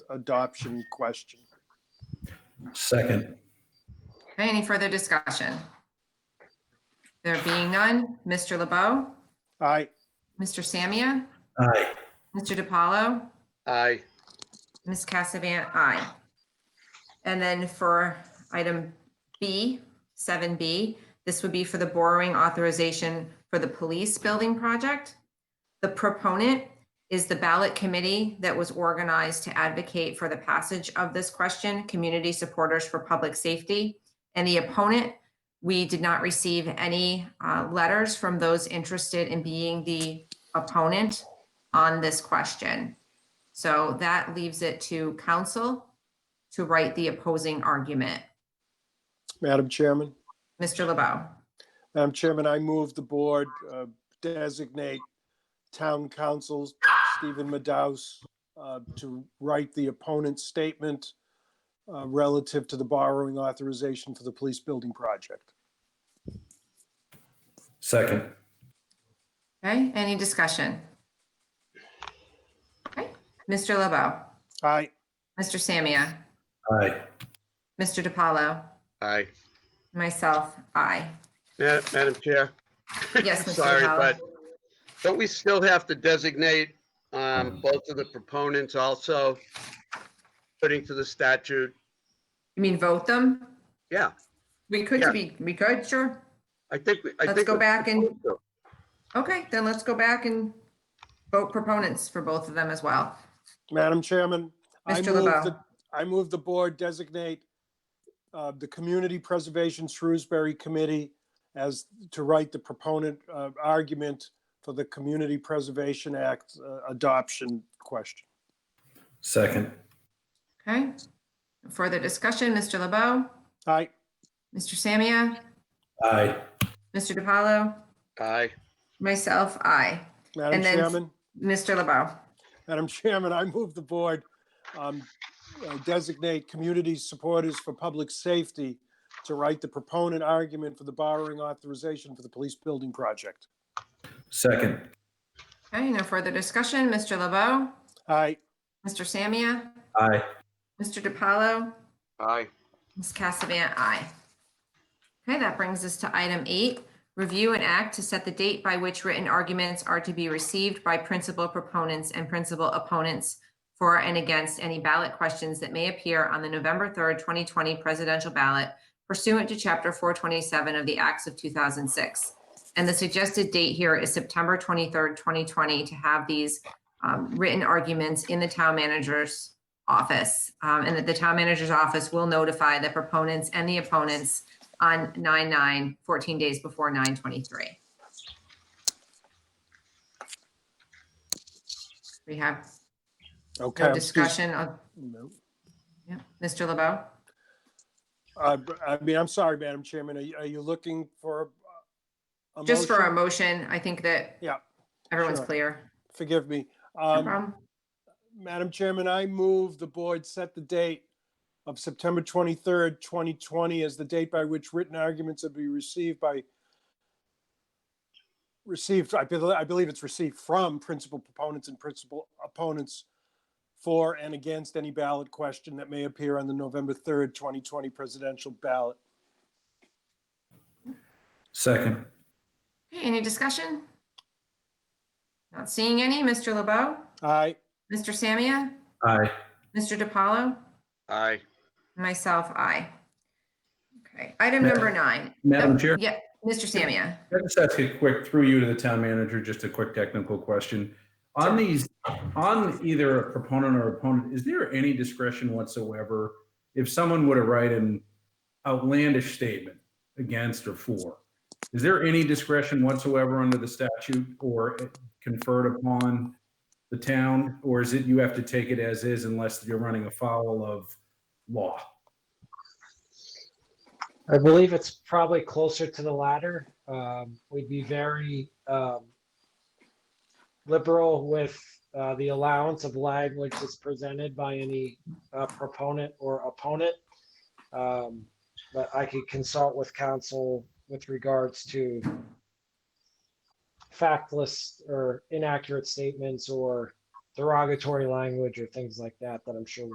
adoption question. Second. Okay, Any further discussion? There being none, Mr. LeBeau, Aye. Mr. Samia, Aye. Mr. DiPaolo, Aye. Ms. Cassavant, aye. And then for item B, seven B, this would be for the borrowing authorization for the police building project. The proponent is the ballot committee that was organized to advocate for the passage of this question, Community Supporters for Public Safety. And the opponent, we did not receive any uh, letters from those interested in being the opponent on this question. So that leaves it to counsel to write the opposing argument. Madam Chairman? Mr. LeBeau, Madam Chairman, I move the board uh, designate town council Stephen Madaus uh, to write the opponent's statement uh, relative to the borrowing authorization for the police building project. Second. okay, any discussion? Okay, Mr. LeBeau, Aye. Mr. Samia, Aye. Mr. DiPaolo, Aye. myself, I. Ma- Madam Chair, Yes, Mr. Sorry, DiPaolo. but- don't we still have to designate um, both of the proponents also putting to the statute? You mean vote them? Yeah, We could Yeah. be, we could, sure. I think. we- I Let's think go we're back and- supposed to. Okay, then let's go back and vote proponents for both of them as well. Madam Chairman? I Mr. move LeBeau. the- I move the board designate uh, the Community Preservation Shrewsbury Committee as to write the proponent uh, argument for the Community Preservation Act uh, adoption question. Second. Okay? Further discussion, Mr. LeBeau, Aye. Mr. Samia, Aye. Mr. DiPaolo, Aye. myself, I. Madam And then- Chairman? Mr. LeBeau. Madam Chairman, I move the board um, uh, designate community supporters for public safety to write the proponent argument for the borrowing authorization for the police building project. Second. Okay, no further discussion. Mr. LeBeau, Aye. Mr. Samia, Aye. Mr. DiPaolo, Aye. Ms. Cassavant, aye. Okay, that brings us to item eight, review and act to set the date by which written arguments are to be received by principal proponents and principal opponents for and against any ballot questions that may appear on the November 3rd, 2020 presidential ballot pursuant to Chapter 427 of the Acts of 2006. And the suggested date here is September 23rd, 2020, to have these um, written arguments in the town manager's office, um, and that the town manager's office will notify the proponents and the opponents on 9/9, 14 days before 9/23. We have Okay. no I'm just- discussion of, No. yeah, Mr. LeBeau? Uh, I mean, I'm sorry, Madam Chairman, are you- are you looking for? a Just for a motion? motion, I think that Yeah, everyone's sure. clear. Forgive me. No Um, problem. Madam Chairman, I move the board set the date of September 23rd, 2020 as the date by which written arguments would be received by, received, I believe, I believe it's received from principal proponents and principal opponents for and against any ballot question that may appear on the November 3rd, 2020 presidential ballot. Second. Okay, Any discussion? Not seeing any. Mr. LeBeau? Aye. Mr. Samia? Aye. Mr. DiPaolo? Aye. Myself, I. Okay, item Ma- number nine. Madam Yep, Chair? Yeah, Mr. Samia. Can I just ask a quick, through you to the town manager, just a quick technical question? On these, on either a proponent or opponent, is there any discretion whatsoever if someone were to write an outlandish statement against or for? Is there any discretion whatsoever under the statute or conferred upon the town? Or is it you have to take it as is unless you're running afoul of law? I believe it's probably closer to the latter. Um, we'd be very um, liberal with uh, the allowance of language that's presented by any uh, proponent or opponent. Um, but I could consult with counsel with regards to factless or inaccurate statements or derogatory language or things like that that I'm sure